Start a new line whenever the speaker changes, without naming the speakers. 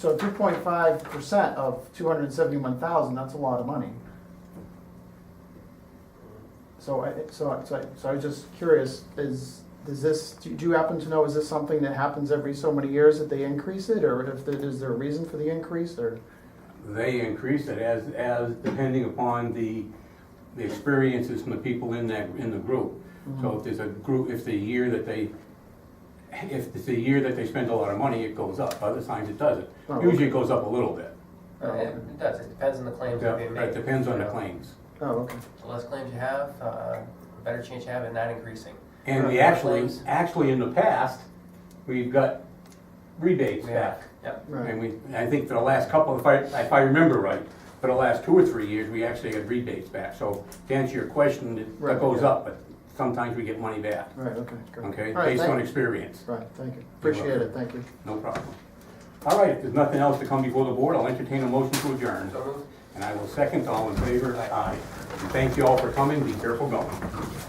So two point five percent of two hundred and seventy-one thousand, that's a lot of money. So I, so I, so I, so I was just curious, is, is this, do do you happen to know, is this something that happens every so many years that they increase it? Or if, there- is there a reason for the increase or?
They increase it as, as depending upon the, the experiences from the people in that, in the group. So if there's a group, if the year that they, if it's the year that they spend a lot of money, it goes up. Other times it doesn't.
Oh, okay.
Usually it goes up a little bit.
Oh,
Uh, It it does, it depends on the claims
Yeah,
that are being made.
It depends on the
you know.
claims.
Oh, okay.
The less claims you have, uh, the better chance you have at not increasing.
And we
Yeah,
actually,
claims.
actually in the past, we've got rebates
Yeah.
back.
Yep,
Right.
And we, I think for the last couple, if I, if I remember right, for the last two or three years, we actually had rebates back. So to answer your question, it
Right.
that goes up, but sometimes we get money back,
Right, okay, great.
okay?
All right,
Based
thank-
on experience,
Right, thank you. Appreciate it, thank you.
no problem. All right, if there's nothing else to come before the board, I'll entertain a motion to adjourn.
so moved.
And I will second all in favor, aye. And Thank you all for coming, be careful going.